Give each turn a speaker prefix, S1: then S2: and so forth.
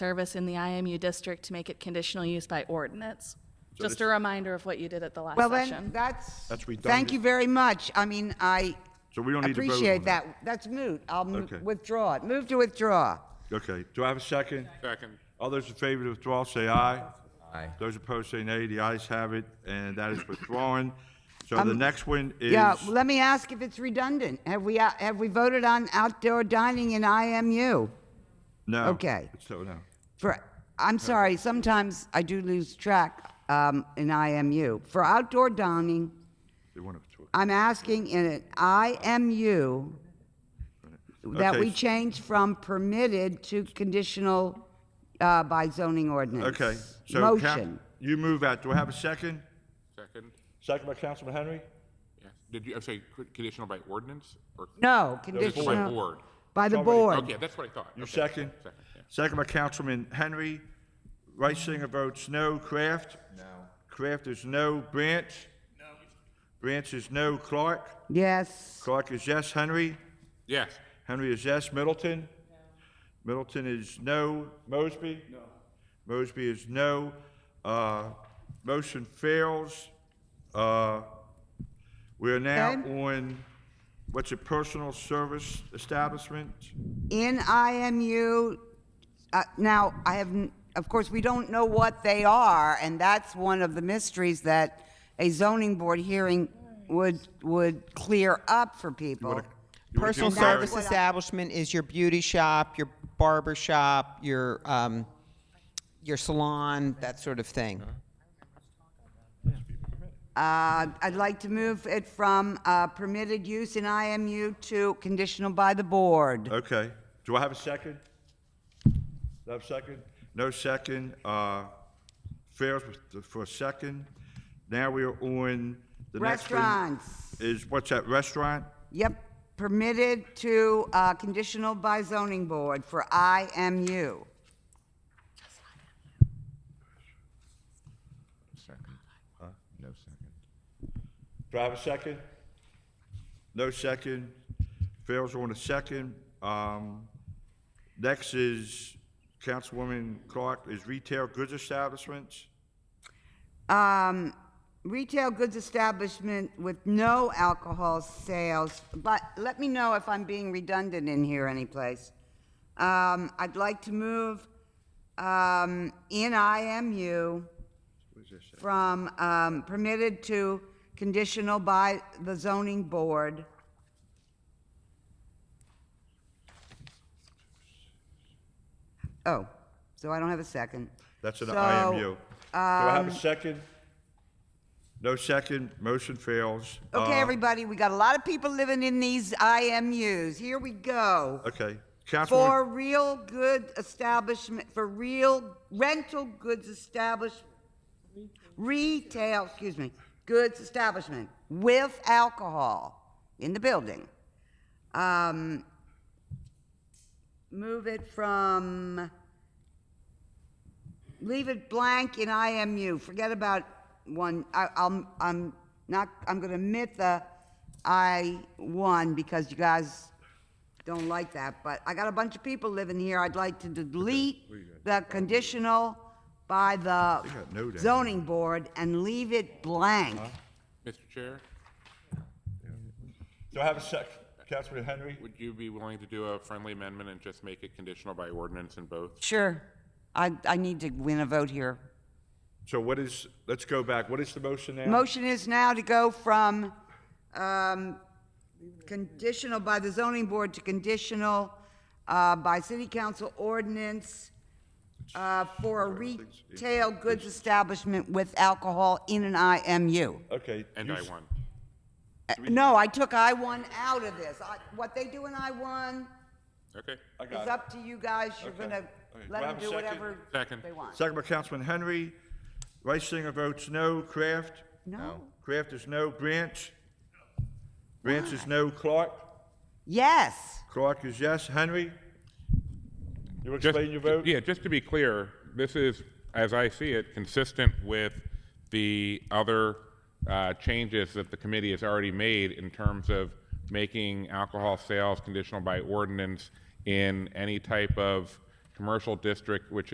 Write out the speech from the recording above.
S1: service in the IMU district to make it conditional use by ordinance.
S2: So
S1: Just a
S2: this-
S1: reminder of what you did at the last
S3: Well, then,
S1: session.
S3: that's,
S2: That's
S3: thank you
S2: redundant.
S3: very much. I mean, I
S2: So we don't need to vote on
S3: appreciate
S2: that.
S3: that. That's moot. I'll mo-
S2: Okay.
S3: withdraw it. Move to withdraw.
S2: Okay, do I have a second?
S4: Second.
S2: All those in favor of withdrawal, say aye.
S5: Aye.
S2: Those opposed, say nay. The ayes have it, and that is withdrawn. So the next one is,
S3: Um, Yeah, let me ask if it's redundant. Have we, uh, have we voted on outdoor dining in IMU?
S2: no.
S3: okay.
S2: So, no.
S3: For, I'm sorry, sometimes I do lose track um, in IMU. For outdoor dining,
S2: They want to withdraw.
S3: I'm asking in an IMU that
S2: Okay,
S3: we
S2: s-
S3: change from permitted to conditional uh, by zoning ordinance.
S2: Okay, so. Coun-
S3: Motion.
S2: You move out. Do I have a second?
S4: Second.
S2: Second by Councilman Henry?
S4: Yes. Did you, I'm sorry, c- conditional by ordinance or?
S3: No,
S4: Conditional by
S3: conditional,
S4: board.
S3: by the
S2: Somebody-
S3: board.
S4: Okay, that's what I thought.
S2: You
S4: Okay.
S2: second?
S4: Second, yeah.
S2: Second by Councilman Henry. Reisinger votes no. Kraft? No. Kraft is no. Branch? No. Branch is no. Clark?
S3: Yes,
S2: Clark is yes. Henry?
S4: Yes,
S2: Henry is yes. Middleton? Middleton is no. Mosby? No. Mosby is no. Uh, motion fails. Uh, we are now
S3: Okay.
S2: on, what's it, personal service establishment?
S3: in IMU, uh, now, I have, n- of course, we don't know what they are, and that's one of the mysteries that a zoning board hearing would, would clear up for people.
S2: You wanna
S6: Personal
S2: do
S3: That's
S6: service
S2: Barry?
S3: what I-
S6: establishment is your beauty shop, your barber shop, your, um, your salon, that sort of thing.
S3: Uh, I'd like to move it from uh, permitted use in IMU to conditional by the board.
S2: Okay. Do I have a second? Do I have a second? No second. Uh, fails with- for a second. Now we are on the next one.
S3: Restaurants.
S2: Is, what's that, restaurant?
S3: Yep, permitted to uh, conditional by zoning board for IMU.
S5: Second. No second.
S2: Do I have a second? No second. Fails on a second. Um, next is Councilwoman Clark, is retail goods establishments.
S3: Um, Retail goods establishment with no alcohol sales, but let me know if I'm being redundant in here anyplace. Um, I'd like to move um, in IMU from um, permitted to conditional by the zoning board. Oh, so I don't have a second.
S2: That's an
S3: So, um,
S2: IMU. Do I have a second? No second. Motion fails.
S3: Okay,
S2: Uh,
S3: everybody, we got a lot of people living in these IMUs. Here we go.
S2: Okay. Councilwoman,
S3: For real good establishment, for real rental goods establishment, retail, excuse me, goods establishment with alcohol in the building. Um, move it from, leave it blank in IMU. Forget about one, I, I'm, I'm not, I'm gonna omit the I one because you guys don't like that, but I got a bunch of people living here. I'd like to delete the conditional by the
S2: They got no down
S3: zoning board and leave it blank.
S4: Mr. Chair,
S2: do I have a second? Councilman Henry?
S4: would you be willing to do a friendly amendment and just make it conditional by ordinance in both?
S3: Sure. I, I need to win a vote here.
S2: So what is, let's go back. What is the motion now?
S3: Motion is now to go from, um, conditional by the zoning board to conditional, uh, by city council ordinance, uh, for a retail goods establishment with alcohol in an IMU.
S2: Okay.
S4: And
S2: you
S4: I
S2: s-
S4: won.
S3: Uh, No, I took I one out of this. I, what they do in I one
S4: Okay.
S2: I
S3: is
S2: got
S3: up to you guys. You're
S2: Okay.
S3: gonna
S2: Okay, do I
S3: let
S2: have
S3: them
S2: a
S3: do
S2: second?
S3: whatever
S4: Second.
S3: they
S2: it.
S3: want.
S2: Second by Councilman Henry. Reisinger votes no. Kraft?
S3: No?
S2: Kraft is no. Branch? Branch is no. Clark?
S3: Yes.
S2: Clark is yes. Henry? You
S4: Just-
S2: explain your vote?
S4: Yeah, just to be clear, this is, as I see it, consistent with the other uh, changes that the committee has already made in terms of making alcohol sales conditional by ordinance in any type of commercial district which